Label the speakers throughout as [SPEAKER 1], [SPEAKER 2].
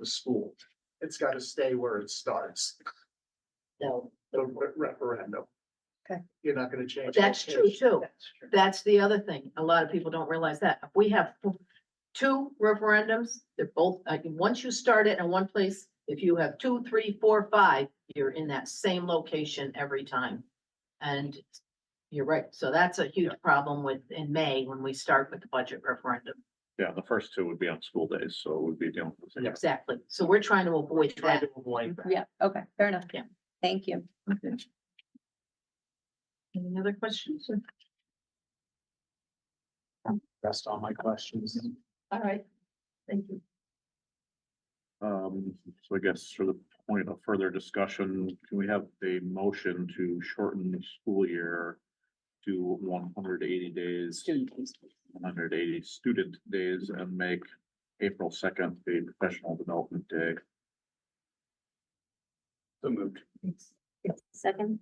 [SPEAKER 1] the school. It's got to stay where it starts,
[SPEAKER 2] No,
[SPEAKER 1] the re- referendum.
[SPEAKER 3] Okay.
[SPEAKER 1] You're not going to change. that.
[SPEAKER 2] that's true too.
[SPEAKER 3] That's true.
[SPEAKER 2] That's the other thing. A lot of people don't realize that. We have two referendums. They're both, like, once you start it in one place, if you have two, three, four, five, you're in that same location every time. And you're right. So that's a huge problem with, in May, when we start with the budget referendum.
[SPEAKER 4] Yeah, the first two would be on school days, so we'd be dealing with the same.
[SPEAKER 2] Exactly. So we're trying to avoid
[SPEAKER 1] Try
[SPEAKER 2] that.
[SPEAKER 1] to avoid that.
[SPEAKER 3] Yeah, okay, fair enough.
[SPEAKER 2] Yeah.
[SPEAKER 3] Thank you.
[SPEAKER 2] Any other questions?
[SPEAKER 1] That's all my questions.
[SPEAKER 2] All right. Thank you.
[SPEAKER 4] Um, so I guess for the point of further discussion, can we have a motion to shorten the school year to one hundred eighty days, one hundred eighty student days and make April second the professional development day?
[SPEAKER 1] So moved.
[SPEAKER 3] Second?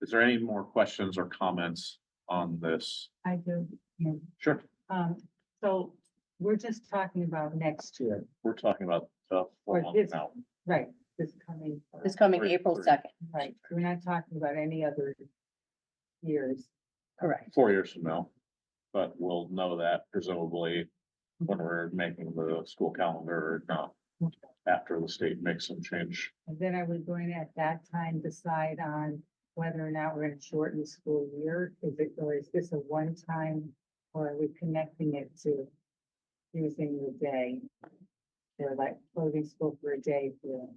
[SPEAKER 4] Is there any more questions or comments on this?
[SPEAKER 5] I do.
[SPEAKER 4] Sure,
[SPEAKER 5] Um, so we're just talking about next year,
[SPEAKER 4] we're talking about the four
[SPEAKER 5] Or
[SPEAKER 4] months
[SPEAKER 5] this-
[SPEAKER 4] now.
[SPEAKER 5] right, this coming,
[SPEAKER 3] It's coming
[SPEAKER 4] Three,
[SPEAKER 3] April
[SPEAKER 4] three.
[SPEAKER 3] second,
[SPEAKER 5] right, we're not talking about any other years.
[SPEAKER 3] correct.
[SPEAKER 4] four years from now. But we'll know that presumably when we're making the school calendar or not. After the state makes some change.
[SPEAKER 5] And then are we going to at that time decide on whether or not we're gonna shorten the school year? Is it, or is this a one-time, or are we connecting it to using the day? Or like closing school for a day for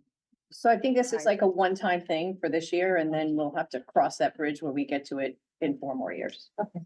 [SPEAKER 3] So I think this is like a one-time thing for this year, and then we'll have to cross that bridge when we get to it in four more years.
[SPEAKER 5] Okay.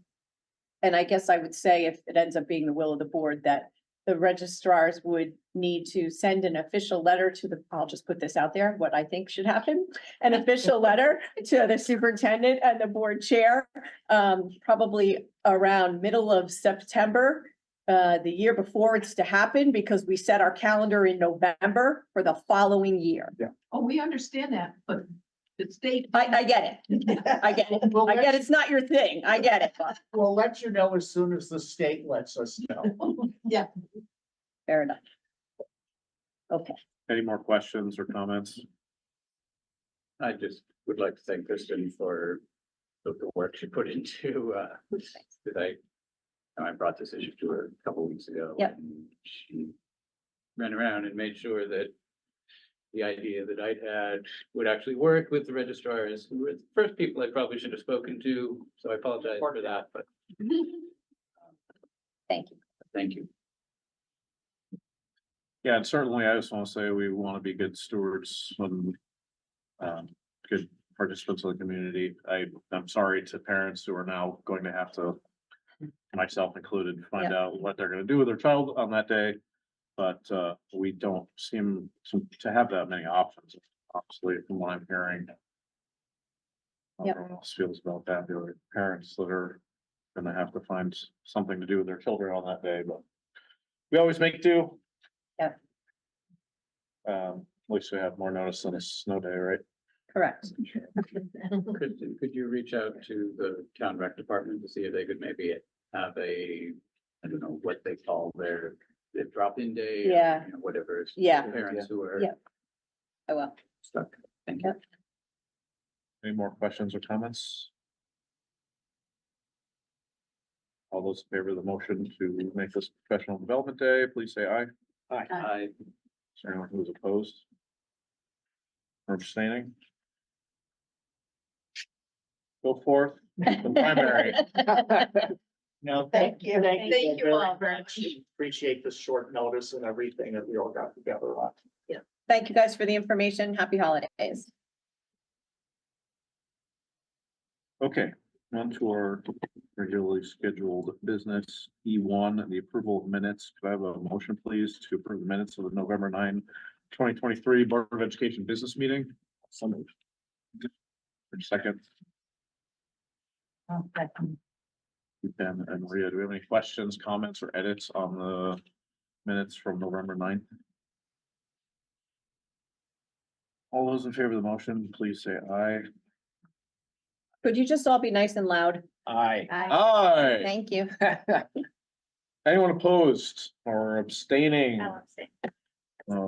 [SPEAKER 3] And I guess I would say if it ends up being the will of the board, that the registrars would need to send an official letter to the, I'll just put this out there, what I think should happen. An official letter to the superintendent and the board chair, um, probably around middle of September. Uh, the year before it's to happen because we set our calendar in November for the following year.
[SPEAKER 2] Oh, we understand that, but the state.
[SPEAKER 3] I, I get it. I get it.
[SPEAKER 1] We'll
[SPEAKER 3] I
[SPEAKER 1] let,
[SPEAKER 3] get it's not your thing. I get it. but
[SPEAKER 1] we'll let you know as soon as the state lets us know.
[SPEAKER 3] Fair enough.
[SPEAKER 4] Any more questions or comments?
[SPEAKER 6] I just would like to thank Kristen for the, the work she put into, uh, that I, and I brought this issue to her a couple weeks ago.
[SPEAKER 3] Yep.
[SPEAKER 6] and She ran around and made sure that the idea that I'd had would actually work with the registrars, who were the first people I probably should have spoken to, so I apologize for that, but
[SPEAKER 3] Thank you.
[SPEAKER 6] thank you.
[SPEAKER 4] Yeah, and certainly I just want to say we want to be good stewards and um, good participants of the community. I, I'm sorry to parents who are now going to have to, myself included, find out what they're going to do with their child on that day. But, uh, we don't seem to, to have that many options, obviously, from what I'm hearing. How
[SPEAKER 3] Yep.
[SPEAKER 4] Everyone else feels about that, the other parents that are gonna have to find something to do with their children on that day, but we always make do.
[SPEAKER 3] Yep.
[SPEAKER 4] Um, at least we have more notice than a snow day, right?
[SPEAKER 3] Correct.
[SPEAKER 6] Kristen, could you reach out to the town rec department to see if they could maybe have a, I don't know what they call their, their drop-in day? or,
[SPEAKER 3] Yeah.
[SPEAKER 6] you know, Whatever.
[SPEAKER 3] Yeah.
[SPEAKER 6] Parents who are
[SPEAKER 3] Yeah.
[SPEAKER 6] Oh,
[SPEAKER 3] I will.
[SPEAKER 6] stuck. Thank you.
[SPEAKER 3] Yep.
[SPEAKER 4] Any more questions or comments? All those in favor of the motion to make this professional development day, please say aye.
[SPEAKER 6] I,
[SPEAKER 4] Is there anyone who's opposed? Or abstaining? Go forth, the primary.
[SPEAKER 1] No,
[SPEAKER 2] Thank you.
[SPEAKER 1] Thank
[SPEAKER 2] Thank you
[SPEAKER 1] you
[SPEAKER 2] all
[SPEAKER 1] very
[SPEAKER 2] very
[SPEAKER 1] much. Appreciate the short notice and everything that we all got together on.
[SPEAKER 3] Thank you guys for the information. Happy holidays.
[SPEAKER 4] Okay, on to our regularly scheduled business, E one, the approval of minutes. Do I have a motion, please, to approve the minutes of the November 9, 2023 Board of Education Business Meeting? So moved. For Second,
[SPEAKER 5] um, that can
[SPEAKER 4] Ben and Maria, do we have any questions, comments, or edits on the minutes from November 9th? All those in favor of the motion, please say aye.
[SPEAKER 3] Could you just all be nice and loud?
[SPEAKER 1] Aye.
[SPEAKER 4] Aye.
[SPEAKER 3] Thank you.
[SPEAKER 4] Anyone opposed or abstaining? Um,